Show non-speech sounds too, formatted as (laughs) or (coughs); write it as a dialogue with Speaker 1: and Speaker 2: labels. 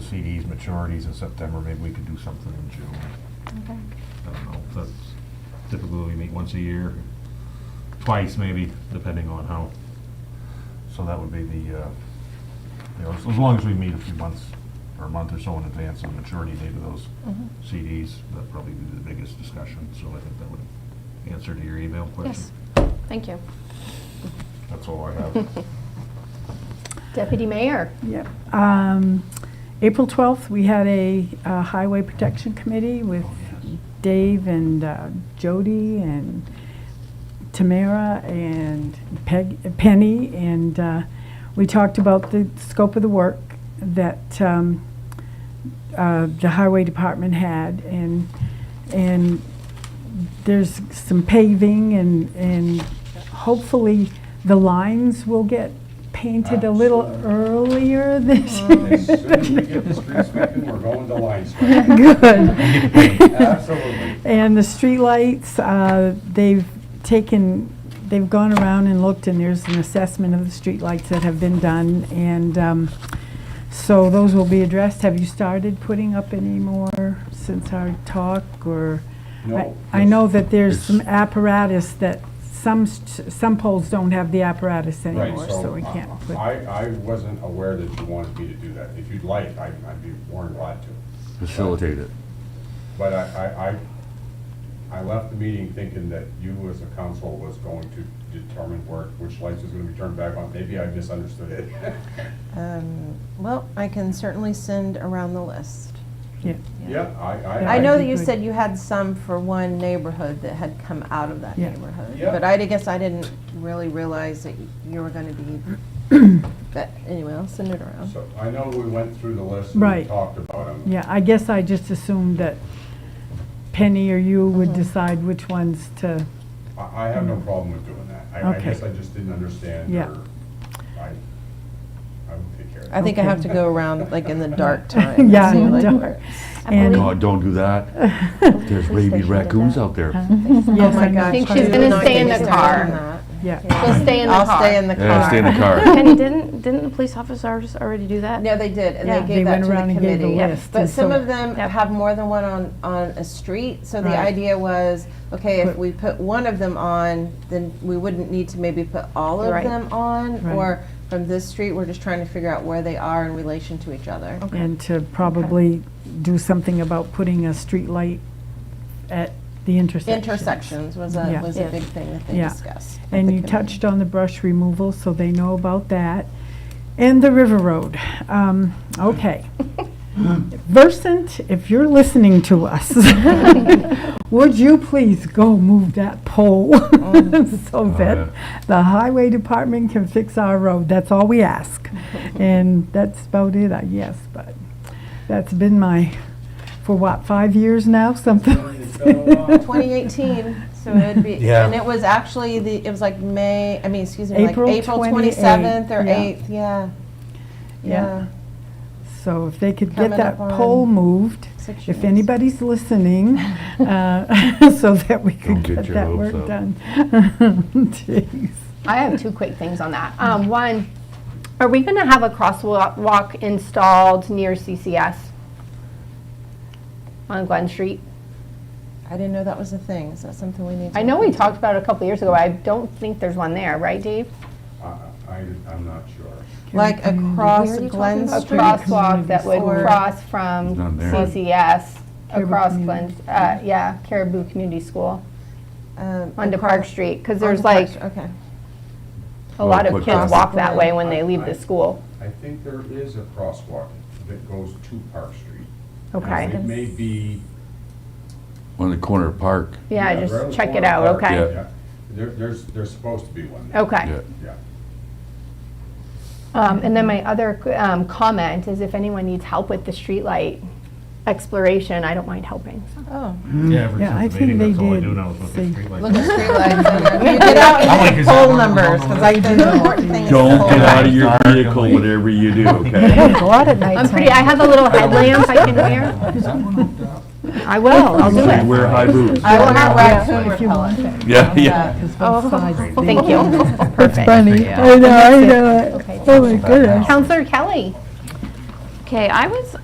Speaker 1: CDs maturities in September, maybe we could do something in June.
Speaker 2: Okay.
Speaker 1: I don't know, that's typically we meet once a year, twice maybe, depending on how. So that would be the, uh, you know, as as long as we meet a few months, or a month or so in advance of maturity date of those
Speaker 3: Mm-hmm.
Speaker 2: Mhm.
Speaker 1: CDs, that'd probably be the biggest discussion, so I think that would answer to your email question.
Speaker 2: Yes, thank you.
Speaker 1: That's all I have.
Speaker 2: Deputy Mayor?
Speaker 3: Yep. Um, April 12th, we had a uh, Highway Protection Committee with
Speaker 1: Oh, yes.
Speaker 3: Dave and uh, Jody and Tamara and Peg, Penny, and uh, we talked about the scope of the work that um, uh, the Highway Department had, and, and there's some paving, and, and hopefully the lines will get painted a little earlier this year. (laughs)
Speaker 4: As soon as we get the street sweeping, we're going to line sweeping.
Speaker 3: Good.
Speaker 4: (laughs) Absolutely.
Speaker 3: And the streetlights, uh, they've taken, they've gone around and looked, and there's an assessment of the streetlights that have been done, and um, so those will be addressed. Have you started putting up any more since our talk, or?
Speaker 4: No.
Speaker 3: I I know that there's some
Speaker 1: It's-
Speaker 3: apparatus that, some, st- some poles don't have the apparatus
Speaker 4: Right,
Speaker 3: anymore, so
Speaker 4: so
Speaker 3: we can't
Speaker 4: uh,
Speaker 3: put.
Speaker 4: I, I wasn't aware that you wanted me to do that. If you'd like, I'd, I'd be more than glad to.
Speaker 5: facilitate it.
Speaker 4: But I, I- I, I left the meeting thinking that you as a council was going to determine where, which lights was gonna be turned back on. Maybe I misunderstood
Speaker 6: (laughs)
Speaker 4: it. (laughs)
Speaker 6: Um, Well, I can certainly send around the list.
Speaker 3: Yeah.
Speaker 4: Yeah, I, I.
Speaker 6: I
Speaker 3: That'd
Speaker 6: know that
Speaker 3: be
Speaker 6: you
Speaker 3: good.
Speaker 6: said you had some for one neighborhood that had come out of that
Speaker 3: Yeah.
Speaker 6: neighborhood.
Speaker 4: Yeah.
Speaker 6: But I guess I didn't really realize that you were gonna be,
Speaker 3: (coughs)
Speaker 6: but anyway, I'll send it around.
Speaker 4: So I know we went through the list
Speaker 3: Right.
Speaker 4: and talked about them.
Speaker 3: Yeah, I guess I just assumed that Penny or you would
Speaker 6: Mm-hmm.
Speaker 3: decide which ones to,
Speaker 4: I, I have no problem with doing that. I, I
Speaker 3: Okay.
Speaker 4: guess I just didn't understand
Speaker 3: Yeah.
Speaker 4: or I, I would take care of it.
Speaker 6: I think I have
Speaker 4: (laughs)
Speaker 6: to go around like in
Speaker 3: (laughs)
Speaker 6: the dark time. and
Speaker 3: Yeah,
Speaker 6: see,
Speaker 3: in the
Speaker 6: like,
Speaker 3: dark.
Speaker 6: where-
Speaker 3: And-
Speaker 5: God, don't
Speaker 3: (laughs)
Speaker 5: do that. There's baby raccoons out there.
Speaker 6: Oh
Speaker 3: Yes,
Speaker 6: my
Speaker 3: I know.
Speaker 6: gosh.
Speaker 2: think
Speaker 6: I
Speaker 2: she's
Speaker 6: do
Speaker 2: gonna
Speaker 6: not
Speaker 2: stay
Speaker 6: get
Speaker 2: in the
Speaker 6: started
Speaker 2: car.
Speaker 6: on that.
Speaker 3: yeah.
Speaker 2: She'll stay in the
Speaker 6: I'll
Speaker 2: car. (laughs)
Speaker 6: stay in the car.
Speaker 5: Yeah, stay in the car.
Speaker 2: Penny, didn't, (laughs) didn't the police officers already do that?
Speaker 6: No, they did, and
Speaker 2: Yeah.
Speaker 6: they
Speaker 3: They
Speaker 6: gave that
Speaker 3: went
Speaker 6: to the
Speaker 3: around and gave the
Speaker 6: committee.
Speaker 3: list,
Speaker 6: But
Speaker 3: and
Speaker 6: some
Speaker 3: so-
Speaker 6: of them
Speaker 2: Yep.
Speaker 6: have more than one on, on a street, so the
Speaker 3: Right.
Speaker 6: idea was, okay, if
Speaker 3: Put-
Speaker 6: we put one of them on, then we wouldn't need to maybe put all of
Speaker 2: Right.
Speaker 6: them on,
Speaker 3: Right.
Speaker 6: or from this street, we're just trying to figure out where they are in relation to each other.
Speaker 3: And to probably do something about putting a street light at the intersection.
Speaker 6: Intersections was
Speaker 3: Yeah.
Speaker 6: a, was a
Speaker 2: Yeah.
Speaker 6: big thing that they
Speaker 3: Yeah.
Speaker 6: discussed. at
Speaker 3: And
Speaker 6: the
Speaker 3: you
Speaker 6: committee.
Speaker 3: touched on the brush removal, so they know about that. And the River Road. Um, Okay. Versant, if you're listening to us,
Speaker 2: (laughs)
Speaker 3: would you please go move that pole
Speaker 4: Oh.
Speaker 3: (laughs) so
Speaker 5: Oh,
Speaker 3: that the highway department can fix our road? That's all we
Speaker 4: (laughs)
Speaker 3: ask. And that's about it, I guess, but that's been my, for what, five years now, something?
Speaker 4: It's been
Speaker 3: (laughs)
Speaker 4: a while.
Speaker 6: 2018, so it'd be,
Speaker 1: Yeah.
Speaker 6: and it was actually the, it was like May, I mean, excuse me, like
Speaker 3: April
Speaker 6: April
Speaker 3: 28th,
Speaker 6: 27th or
Speaker 3: yeah.
Speaker 6: 8th,
Speaker 3: Yeah.
Speaker 6: yeah. Yeah.
Speaker 3: So if they could get
Speaker 6: Coming
Speaker 3: that
Speaker 6: up
Speaker 3: pole
Speaker 6: on
Speaker 3: moved,
Speaker 6: six
Speaker 3: if
Speaker 6: years.
Speaker 3: anybody's
Speaker 6: (laughs)
Speaker 3: listening, uh, (laughs) so that we could
Speaker 5: Don't get
Speaker 3: get
Speaker 5: your
Speaker 3: that
Speaker 5: hopes
Speaker 3: work
Speaker 5: up.
Speaker 3: done. (laughs) Jeez.
Speaker 2: I have two quick things on that. Um, one, are we gonna have a crosswalk walk installed near CCS? On Glen Street?
Speaker 6: I didn't know that was a thing. Is that something we need to?
Speaker 2: I know we talked about it a couple years ago, I don't think there's one there, right, Dave?
Speaker 4: I, I, I'm not sure.
Speaker 6: Like across
Speaker 2: talking
Speaker 6: Glen
Speaker 2: A
Speaker 6: Street.
Speaker 2: crosswalk that would
Speaker 6: Or-
Speaker 2: cross from
Speaker 5: It's not there.
Speaker 2: CCS
Speaker 3: Caribou
Speaker 2: across Glen,
Speaker 3: Community.
Speaker 2: uh, yeah, Caribou Community School,
Speaker 6: um,
Speaker 2: onto
Speaker 6: across-
Speaker 2: Park Street, because
Speaker 6: onto
Speaker 2: there's
Speaker 6: Park
Speaker 2: like,
Speaker 6: Street, Okay.
Speaker 2: a lot
Speaker 5: Well,
Speaker 2: of
Speaker 5: across
Speaker 2: kids
Speaker 5: the
Speaker 2: walk that way when they
Speaker 4: I-
Speaker 2: leave
Speaker 4: I-
Speaker 2: the school.
Speaker 4: I think there is a crosswalk that goes to Park Street.
Speaker 2: Okay.
Speaker 4: It may be.
Speaker 5: On the corner of Park,
Speaker 2: Yeah,
Speaker 4: around
Speaker 2: just
Speaker 4: the
Speaker 2: check it
Speaker 4: corner
Speaker 2: out,
Speaker 4: of Park,
Speaker 2: okay?
Speaker 4: yeah. There, there's, there's supposed to be one. there.
Speaker 2: Okay.
Speaker 5: yeah.
Speaker 4: Yeah.
Speaker 2: Um, and then my other um, comment is if anyone needs help with the streetlight exploration, I don't mind helping.
Speaker 6: Oh,
Speaker 1: Yeah, ever
Speaker 3: Yeah, I
Speaker 1: since the meeting,
Speaker 3: think they
Speaker 1: that's all I do now is look at streetlights.
Speaker 3: did say- (laughs)
Speaker 6: look at (laughs) streetlights. You get out
Speaker 1: I'm like,
Speaker 6: and
Speaker 1: is
Speaker 6: get
Speaker 1: that
Speaker 6: poll
Speaker 1: one of the
Speaker 6: numbers, because I
Speaker 1: ones
Speaker 6: think the important thing is the
Speaker 5: Don't
Speaker 6: poll
Speaker 5: get out
Speaker 6: numbers.
Speaker 5: of your vehicle, whatever you
Speaker 2: (laughs)
Speaker 5: do, okay?
Speaker 3: Go out at night.
Speaker 2: I'm pretty, I have a
Speaker 5: (laughs)
Speaker 2: little headlamp I can wear.
Speaker 1: Is that one hooked up?
Speaker 2: I will, I'll do it.
Speaker 5: Wear high boots.
Speaker 6: I want
Speaker 2: Yeah,
Speaker 6: a raccoon
Speaker 3: If you want
Speaker 6: repellent.
Speaker 3: that.
Speaker 5: Yeah, (laughs) yeah.
Speaker 2: Oh. Thank (laughs) you. Perfect.
Speaker 3: Funny. I know, I know. Oh, my goodness.
Speaker 2: Counselor Kelly?
Speaker 7: Okay, I was